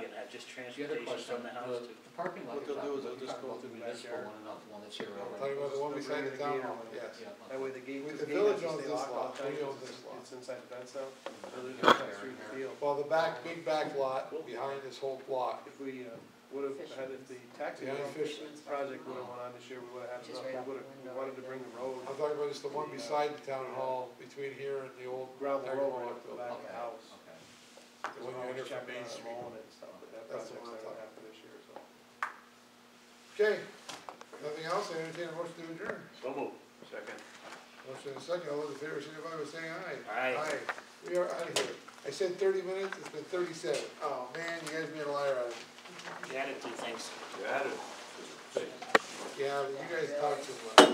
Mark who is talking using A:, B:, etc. A: just
B: The other
A: transportation
B: question,
A: from the house to.
B: the the parking lot
C: What
B: you're
C: they'll
B: talking
C: do is
B: about, you're
C: they'll just
B: talking
C: go
B: about the
C: through the
B: municipal
C: backyard.
B: one and not the one that's here
D: Talking
B: already.
D: about the one beside the town hall, yes.
B: Yeah,
C: That way the gate,
D: We-
C: the gate has
D: the village
C: to
D: owns
C: stay
D: this
C: locked all
D: lot.
C: the time,
D: We own
C: because
D: this
C: it's,
D: lot.
C: it's inside the fence now. So there's
B: Yeah, there
C: no cut through
B: and
C: the
B: there.
C: field.
D: Well, the back, big back lot behind this whole block,
C: If we, uh, would have had, if the taxi
D: Yeah,
C: road
D: Fisherman's
C: project would have went on this year, we would have had
E: Which is
C: enough,
E: right out
C: we would
E: the
C: have,
E: window
C: we wanted
E: right
C: to
E: there.
C: bring the road,
D: I'm talking about just the one beside the town hall, between here and the old.
C: gravel road up to the
D: Building.
C: back of
B: Okay,
C: the house.
B: okay.
C: Because
D: When
C: we're always
D: you enter from
C: checking
D: Main
C: on it,
D: Street.
C: mowing it and stuff, but that
D: That's
C: project's
D: the
C: not
D: one I'm
C: gonna
D: talking
C: happen this year, so.
D: Okay, nothing else, I entertain a motion to adjourn.
A: So moved.
D: Motion and second, all those in favor, signify by saying aye.
A: Aye.
D: we are out of here. I said thirty minutes, it's been thirty-seven. Oh, man, you guys made a liar out of me.
A: You added two things.
D: Yeah, but you guys talk too much.